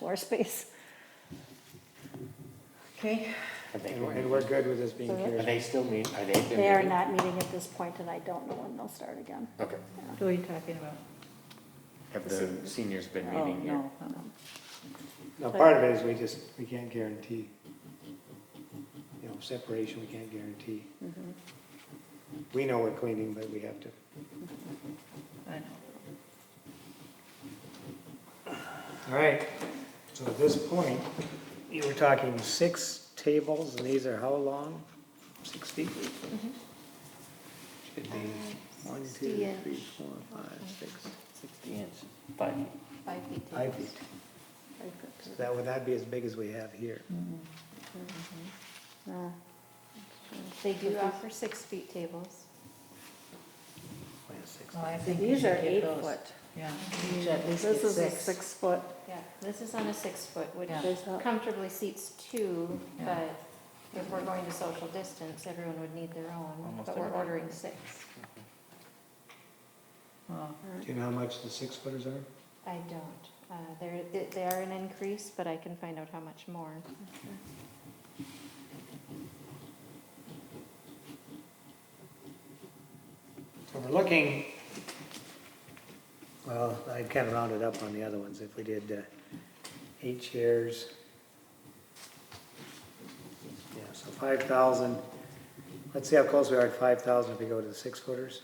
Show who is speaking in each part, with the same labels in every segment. Speaker 1: more space. Okay,
Speaker 2: Have they,
Speaker 3: And and we're good with this being
Speaker 1: Mhm.
Speaker 3: carried.
Speaker 2: are they still meet, are they? been
Speaker 1: they are
Speaker 2: meeting?
Speaker 1: not meeting at this point, and I don't know when they'll start again.
Speaker 2: Okay.
Speaker 4: Who are you talking about?
Speaker 2: Have the seniors been
Speaker 4: Oh,
Speaker 2: meeting yet?
Speaker 4: no, no.
Speaker 3: Now, part of it is we just, we can't guarantee, you know, separation, we can't guarantee. We know we're cleaning, but we have to.
Speaker 4: I know.
Speaker 3: All right, so at this point, you were talking six tables, and these are how long? Six feet? Mm-hmm. Should be one, two, three, four, five, six,
Speaker 2: Sixty inch, five.
Speaker 1: Five feet.
Speaker 3: five feet. So That would, that'd be as big as we have here.
Speaker 1: They do offer,
Speaker 5: offer six-feet tables.
Speaker 3: Wait a six.
Speaker 4: Well, I think you
Speaker 1: these are
Speaker 4: should get
Speaker 1: eight
Speaker 4: those.
Speaker 1: foot.
Speaker 4: Yeah.
Speaker 1: This is a six foot.
Speaker 5: Yeah, this is on a six-foot, which
Speaker 4: Yeah.
Speaker 1: There's a-
Speaker 5: comfortably seats two,
Speaker 4: Yeah.
Speaker 5: but if we're going to social distance, everyone would need their own,
Speaker 2: Almost
Speaker 5: but we're
Speaker 2: everyone.
Speaker 5: ordering six.
Speaker 4: Well,
Speaker 3: Do you know how much the six footers are?
Speaker 5: I don't. Uh, They're, they- they are an increase, but I can find out how much more.
Speaker 3: So we're looking, well, I'd kind of rounded up on the other ones, if we did uh, eight chairs. Yeah, so five thousand, let's see how close we are at five thousand if we go to the six footers.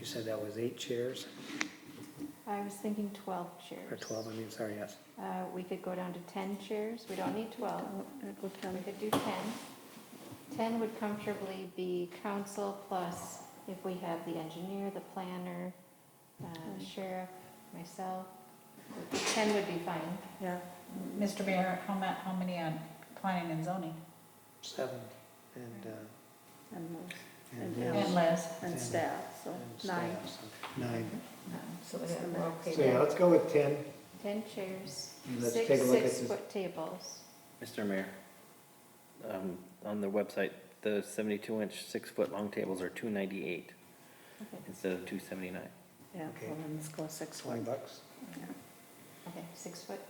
Speaker 3: You said that was eight chairs,
Speaker 5: I was thinking twelve
Speaker 3: or
Speaker 5: chairs.
Speaker 3: twelve, I mean, sorry, yes.
Speaker 5: Uh, We could go down to ten chairs. We don't need twelve. We could do 10. 10 would comfortably be council plus if we have the engineer, the planner, uh, sheriff, myself. 10 would be fine.
Speaker 1: Yeah,
Speaker 4: Mr. Mayor, how ma, how many on planning and zoning?
Speaker 3: Seven, and, uh,
Speaker 1: and, those- And
Speaker 3: and Liz,
Speaker 4: And Les?
Speaker 1: and staff, so
Speaker 3: and
Speaker 1: nine.
Speaker 3: staff, so Nine,
Speaker 4: So we have, we're okay
Speaker 3: so yeah,
Speaker 4: there.
Speaker 3: let's go with ten,
Speaker 5: 10 chairs,
Speaker 3: and let's take
Speaker 5: six
Speaker 3: a look at this.
Speaker 5: six-foot tables.
Speaker 6: Mr. Mayor, um, on the website, the seventy-two inch, six-foot long tables are two ninety-eight
Speaker 5: Okay.
Speaker 6: instead of two seventy-nine.
Speaker 1: Yeah,
Speaker 3: Okay.
Speaker 1: well, then let's go six
Speaker 3: Twenty
Speaker 1: foot.
Speaker 3: bucks.
Speaker 1: Yeah.
Speaker 5: Okay, six-foot.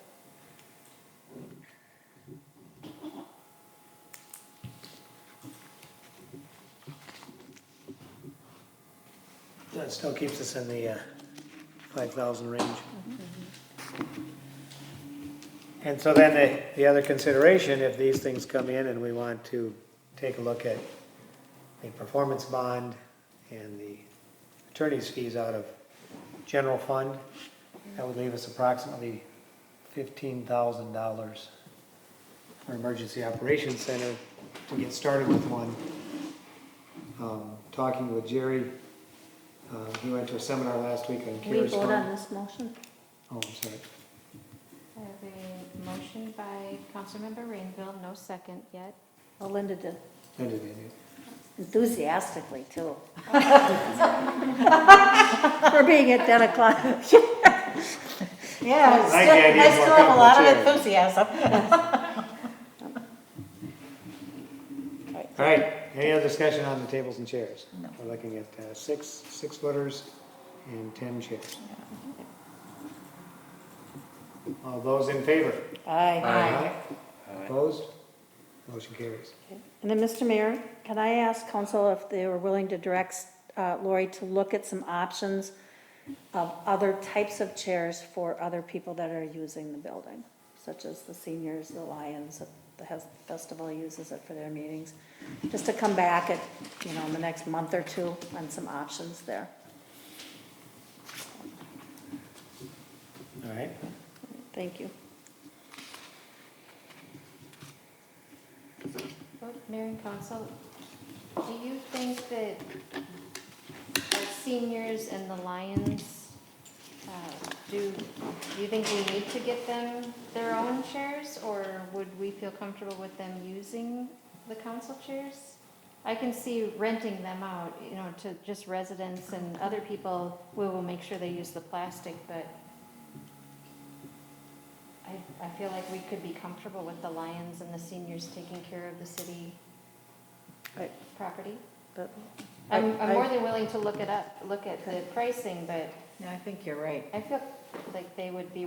Speaker 3: That still keeps us in the uh, 5,000 range. And so then the, the other consideration, if these things come in and we want to take a look at the performance bond and the attorney's fees out of general fund, that would leave us approximately $15,000 for emergency operations center to get started with one. Um, Talking with Jerry, uh, He went to a seminar last week on
Speaker 1: We
Speaker 3: CARES
Speaker 1: vote on
Speaker 3: Fund.
Speaker 1: this motion?
Speaker 3: Oh, I'm sorry.
Speaker 5: I have a motion by Councilmember Rainville, no second yet.
Speaker 1: Well, Linda did
Speaker 3: No, no, no, no.
Speaker 1: enthusiastically too. For being at ten o'clock.
Speaker 4: Yeah,
Speaker 3: still- I can't I even still have a walk up lot of the chair.
Speaker 4: enthusiasm.
Speaker 3: All right, any other discussion on the tables and chairs? We're looking at uh, six, six footers and 10 chairs. All those in favor? Opposed? Motion carries.
Speaker 1: And then, Mr. Mayor, can I ask council if they were willing to direct uh, Lori to look at some options of other types of chairs for other people that are using the building, such as the seniors, the Lions, the Hes- festival uses it for their meetings, just to come back at, you know, in the next month or two on some options there.
Speaker 3: All right,
Speaker 1: Thank you.
Speaker 5: Vote, Mayor and council, do you think that our seniors and the Lions, uh, do, do you think we need to get them their own chairs? Or would we feel comfortable with them using the council chairs? I can see renting them out, you know, to just residents and other people, we will make sure they use the plastic, but I, I feel like we could be comfortable with the Lions and the seniors taking care of the city
Speaker 1: Right.
Speaker 5: property.
Speaker 1: But
Speaker 5: I'm,
Speaker 1: I-
Speaker 5: I'm more than willing to look it up, look at the pricing, but
Speaker 4: I think you're right.
Speaker 5: I feel like they would be